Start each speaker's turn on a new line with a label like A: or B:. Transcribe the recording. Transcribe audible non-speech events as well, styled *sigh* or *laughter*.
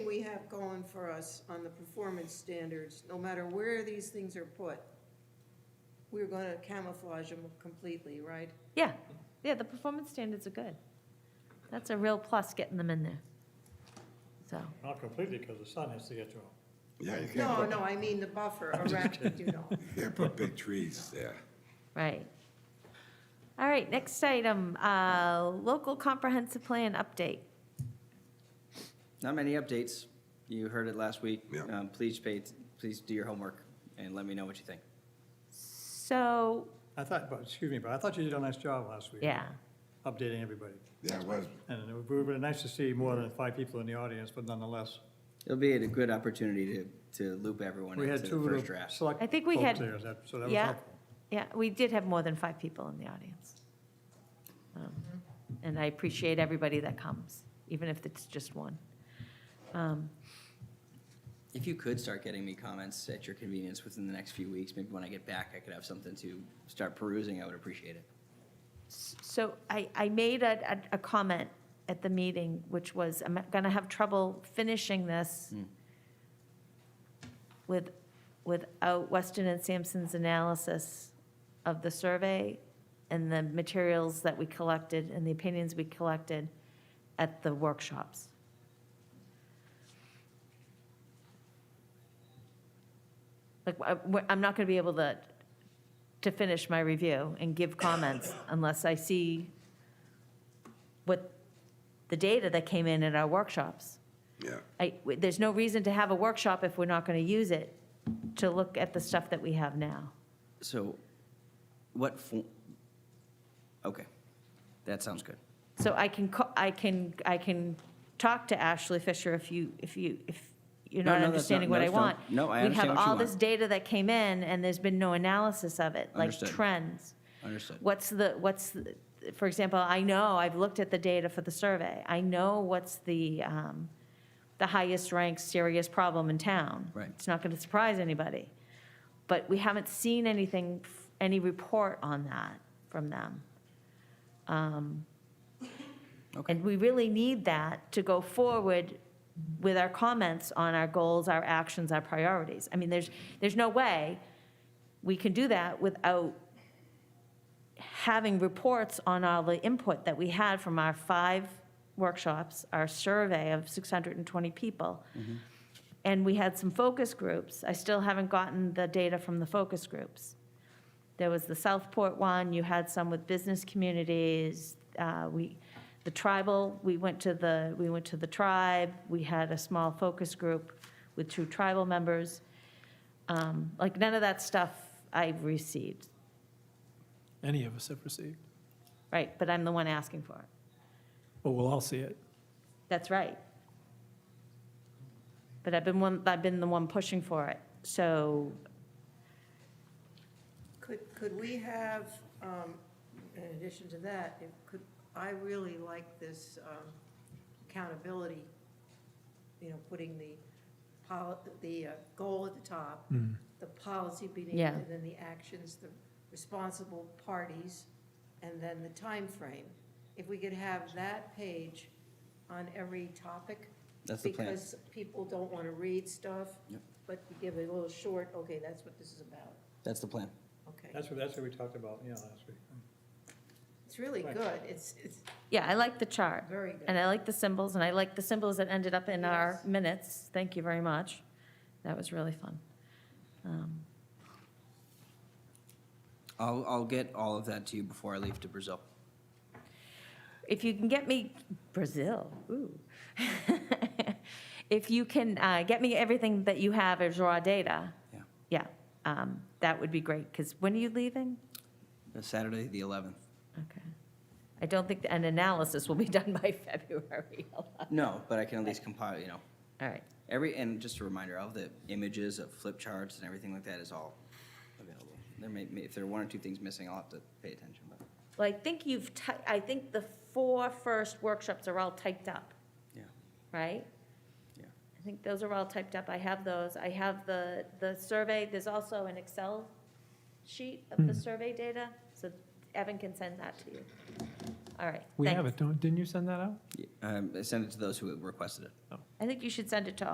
A: have going for us on the performance standards, no matter where these things are put, we're gonna camouflage them completely, right?
B: Yeah, yeah, the performance standards are good. That's a real plus getting them in there. So,
C: Not completely, because the sun has to get to them.
D: Yeah, you can't
A: No,
D: put,
A: no, I mean the buffer around, you know.
D: you can't put big trees there.
B: right. All right, next item, uh, local comprehensive plan update.
E: Not many updates. You heard it last week.
D: Yeah.
E: Um, Please pay, please do your homework and let me know what you think.
B: So,
C: I thought, but, excuse me, but I thought you did a nice job last week.
B: yeah,
C: Updating everybody.
D: Yeah, it was,
C: And it would be really nice to see more than five people in the audience, but nonetheless,
E: It'll be a good opportunity to, to loop everyone
C: we had
E: into the
C: two
E: first
C: of the
E: draft.
C: select.
B: I think we
C: folks
B: had-
C: there, that- So that was
B: yeah,
C: helpful.
B: yeah, we did have more than five people in the audience. Um, And I appreciate everybody that comes, even if it's just one. Um,
E: If you could start getting me comments at your convenience within the next few weeks, maybe when I get back, I could have something to start perusing. I would appreciate it.
B: So I, I made a, a- a comment at the meeting, which was, I'm going to have trouble finishing this with, without Weston and Sampson's analysis of the survey and the materials that we collected and the opinions we collected at the workshops. Like, I- I'm not going to be able to to finish my review and give comments unless I see what the data that came in at our workshops.
D: yeah.
B: I, there's no reason to have a workshop if we're not going to use it to look at the stuff that we have now.
E: So what, fo- okay, that sounds good.
B: So I can, co- I can, I can talk to Ashley Fisher if you, if you, if you're
E: No,
B: not
E: no, that's not-
B: understanding what
E: no,
B: I
E: it's not.
B: want.
E: No, I
B: We
E: understand
B: have
E: what you
B: all this
E: want.
B: data that came in and there's been no analysis of it, like
E: Understood.
B: trends.
E: Understood.
B: What's the, what's, the- for example, I know, I've looked at the data for the survey. I know what's the, um, the highest ranked serious problem in town.
E: Right.
B: It's not going to surprise anybody. But we haven't seen anything, f- any report on that from them. Um,
E: Okay.
B: And we really need that to go forward with our comments on our goals, our actions, our priorities. I mean, there's, there's no way we can do that without having reports on all the input that we had from our five workshops, our survey of 620 people. And we had some focus groups. I still haven't gotten the data from the focus groups. There was the Southport one, you had some with business communities, uh, we, the tribal, we went to the, we went to the tribe, we had a small focus group with two tribal members. Um, Like, none of that stuff I've received.
F: any of us have received.
B: Right, but I'm the one asking for it.
F: Well, we'll all see it.
B: That's right. But I've been one, I've been the one pushing for it. So,
A: Could, could we have, um, in addition to that, if, could, I really like this, um, accountability, you know, putting the pol, the, uh, goal at the top, the policy beneath,
B: Yeah.
A: and then the actions, the responsible parties, and then the time frame. If we could have that page on every topic.
E: That's the plan.
A: Because people don't want to read stuff.
E: Yep.
A: But we give it a little short, okay, that's what this is about,
E: That's the plan.
A: okay.
C: That's what, that's what we talked about, yeah, last week.
A: It's really
C: Right.
A: good. It's, it's
B: yeah, I like the chart.
A: very good.
B: And I like the symbols, and I like the symbols that ended up in our
A: Yes.
B: minutes. Thank you very much. That was really fun. Um,
E: I'll, I'll get all of that to you before I leave to Brazil.
B: If you can get me, Brazil, ooh. *laughs* If you can uh, get me everything that you have as raw data,
E: Yeah.
B: yeah, um, that would be great, because when are you leaving?
E: Saturday, the 11th.
B: Okay. I don't think an analysis will be *laughs* done by February. *laughs* All
E: No, but I can at least compile, you know,
B: right,
E: every, and just a reminder, all the images of flip charts and everything like that is all available. There may, may- if there are one or two things missing, I'll have to pay attention, but,
B: well, I think you've, ty- I think the four first workshops are all typed up,
E: yeah.
B: right?
E: Yeah.
B: I think those are all typed up, I have those, I have the, the survey, there's also an Excel sheet of
F: Hmm.
B: the survey data, so Evan can send that to you. All right,
F: We have
B: thanks.
F: it, don't, didn't you send that out?
E: Yeah, Um, send it to those who requested it.
B: I think you should send it to all.